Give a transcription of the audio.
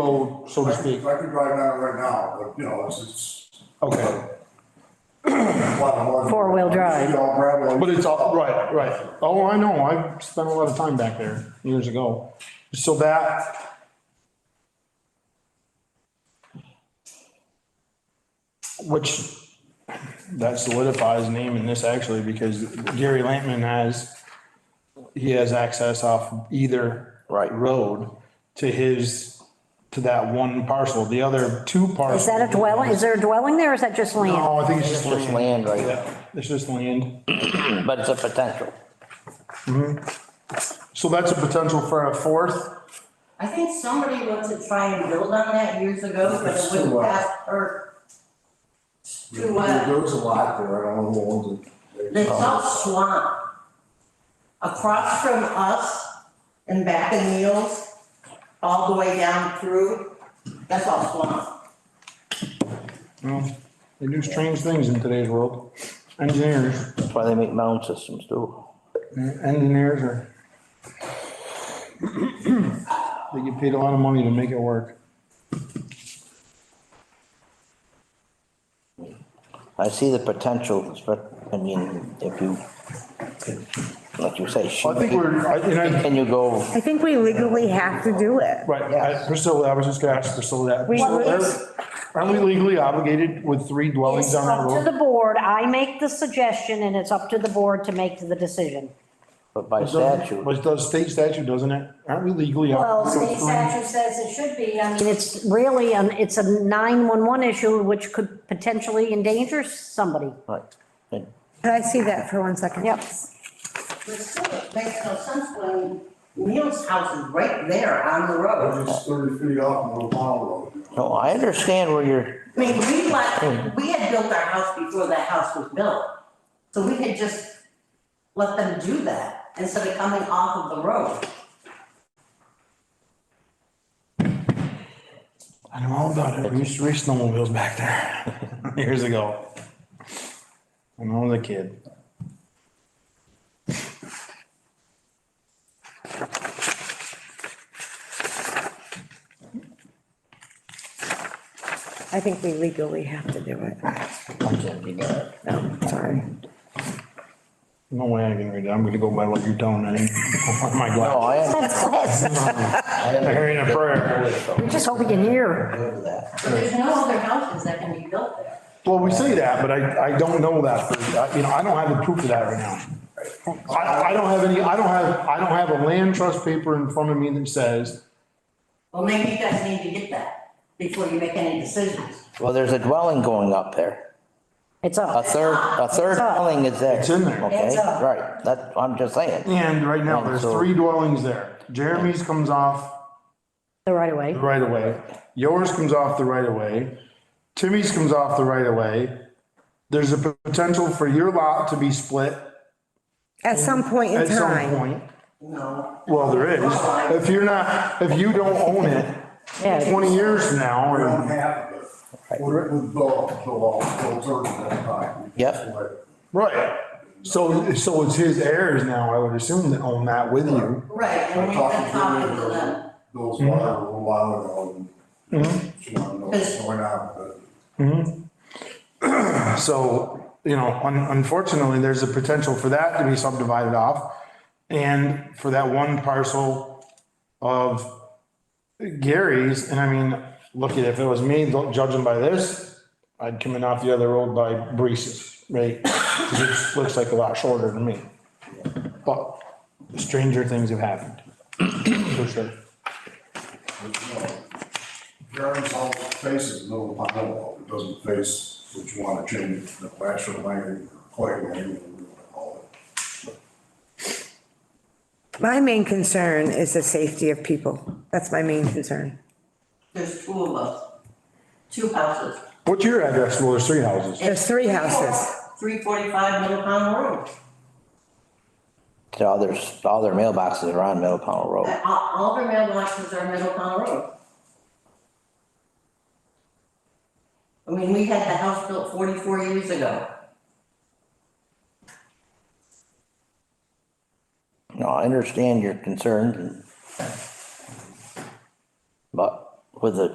road, so to I could, speak? I could drive down it right now, but you know, it's, it's. Okay, a lot of hard- Four-wheel drive. It's all gravel. but it's all, right, right. Oh, I know, I spent a lot of time back there years ago. So that, which, that solidifies naming this actually, because Gary Lampman has, he has access off either Right. road to his, to that one parcel. The other two parcels. Is that a dwelling? Is there a dwelling there or is that just land? No, I think it's just It's just land. land, right? Mm. Yeah, it's just land. But it's a potential. So that's a potential for a fourth. I think somebody wanted to try and build on that years ago, but It's it too wouldn't wide. pass, or There too wide. there was a lot there, I don't know who owns it. It's all swamp. Across from us and back in Neal's, all the way down through, that's all swamp. Well, They do strange things in today's world. Engineers, That's why they make mound systems too. engineers are. They get paid a lot of money to make it work. I see the potential, but, I mean, if you, like you say. I think we're, I- and I, Can you go, I think we legally have to do it. right, I- Priscilla, I was just gonna ask Priscilla that. We- Priscilla, Aren't we legally obligated with three dwellings It's on that up to road? the board. I make the suggestion and it's up to the board to make the decision. but by Doesn't- statute, But it does state statute, doesn't it? Aren't we legally? Well, obligated state with three? statute says it should be, I mean, it's really, an it's a 911 issue which could potentially endanger somebody. right? And Could I see that for one second? Yep. But still, it makes no sense when Neal's house is right there on the road. They're just thirty feet off of the pond road. No, I understand where you're, I mean, we Hmm. let, we had built our house before that house was built. So we could just let them do that instead of coming off of the road. I know all about it. We used to race snowmobiles back there years ago. When I was a kid. I think we legally have to do it. I can't be there. No, sorry. No way I can read it. I'm gonna go by what you're telling me. Oh My No, God. I, That's class. I under- Hearing a prayer. We just hope we can hear. under that. There's no other houses that can be built there. Well, we say that, but I, I don't know that. for- I- You know, I don't have the proof of that right now. I, I don't have any, I don't have, I don't have a land trust paper in front of me that says, Well, maybe you guys need to get that before you make any decisions. Well, there's a dwelling going up there. It's A up. third, a third up. dwelling is there. It's in there. Okay, It's up. right. That, I'm just saying. and right now, there's three dwellings there. Jeremy's comes off The right away. the right of way. Yours comes off the right of way. Timmy's comes off the right of way. There's a potential for your lot to be split At some point in at some time. point. No. Well, there is. If you're not, if you don't own it Yeah. twenty years from now, We don't or, have it. We're, we're built, so all, so dirt at that time. Yep. right. So, so it's his heirs now, I would assume, that own that with you. Right, and I we talked have to to talk to Jimmy them. about those water a little while ago. and Mm-hmm. She wanted to know what's going on, but. So, you know, un- unfortunately, there's a potential for that to be subdivided off. And for that one parcel of Gary's, and I mean, look, if it was me, don't judge him by this, I'd come in off the other road by Brees's, right? 'Cause it looks like a lot shorter than me. But stranger things have happened, for sure. Jeremy's all faces the middle of the pond wall, it doesn't face what you wanna change, the actual lane, clay lane, whatever you wanna call it. My main concern is the safety of people. That's my main concern. There's two of us, two houses. What's your address? Well, there's three houses. There's three houses. Three forty-five Middle Pond Road. All their, all their mailboxes are on Middle Powell Road. All, all their mailboxes are Middle Pond Road. I mean, we had the house built forty-four years ago. No, I understand your concerns and. But with the